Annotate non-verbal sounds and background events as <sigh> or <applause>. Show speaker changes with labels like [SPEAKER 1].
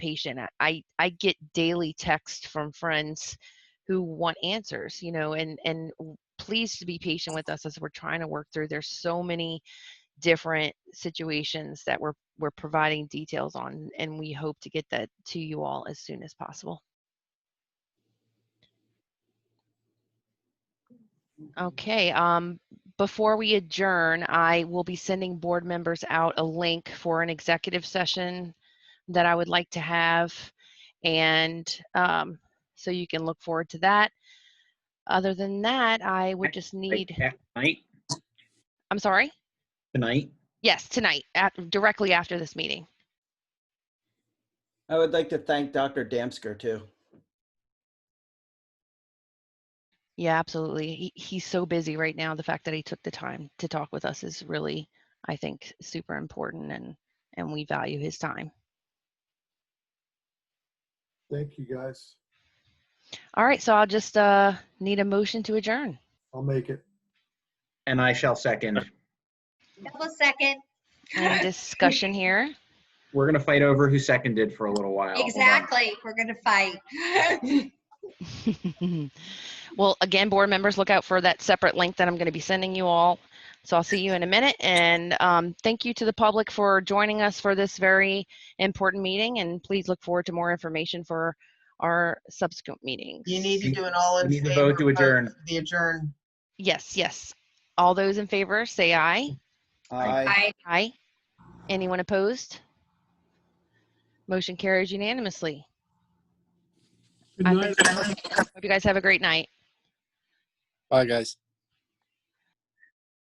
[SPEAKER 1] patient. I- I I get daily texts from friends who want answers, you know, and and w- please to be patient with us as we're trying to work through. There's so many different situations that we're we're providing details on, and we hope to get that to you all as soon as possible. Okay, um, before we adjourn, I will be sending board members out a link for an executive session that I would like to have. And um, so you can look forward to that. Other than that, I would just need,
[SPEAKER 2] Tonight,
[SPEAKER 1] I'm sorry?
[SPEAKER 2] tonight,
[SPEAKER 1] Yes, tonight, at- directly after this meeting.
[SPEAKER 3] I would like to thank Dr. Damsker too.
[SPEAKER 1] Yeah, absolutely. He, he's so busy right now. The fact that he took the time to talk with us is really, I think, super important and, and we value his time.
[SPEAKER 4] Thank you, guys.
[SPEAKER 1] All right, so I'll just uh, need a motion to adjourn.
[SPEAKER 4] I'll make it.
[SPEAKER 2] and I shall second.
[SPEAKER 5] Double second.
[SPEAKER 1] Any discussion here?
[SPEAKER 2] We're gonna fight over who seconded for a little while. Hold on.
[SPEAKER 5] Exactly. We're gonna fight. <laughs>
[SPEAKER 1] <laughs> well, again, board members, look out for that separate link that I'm going to be sending you all. So I'll see you in a minute. And um, thank you to the public for joining us for this very important meeting. And please look forward to more information for our subsequent meetings.
[SPEAKER 6] You need to do an all in
[SPEAKER 2] We need
[SPEAKER 6] favor.
[SPEAKER 2] to vote to
[SPEAKER 6] vote
[SPEAKER 2] adjourn.
[SPEAKER 6] for The adjourn.
[SPEAKER 1] Yes, yes. All those in favor, say aye.
[SPEAKER 3] Aye.
[SPEAKER 5] Aye.
[SPEAKER 1] Aye. Anyone opposed? Motion carries unanimously.
[SPEAKER 4] Good
[SPEAKER 1] I
[SPEAKER 4] night.
[SPEAKER 1] think- Hope you guys have a great night.
[SPEAKER 7] Bye, guys.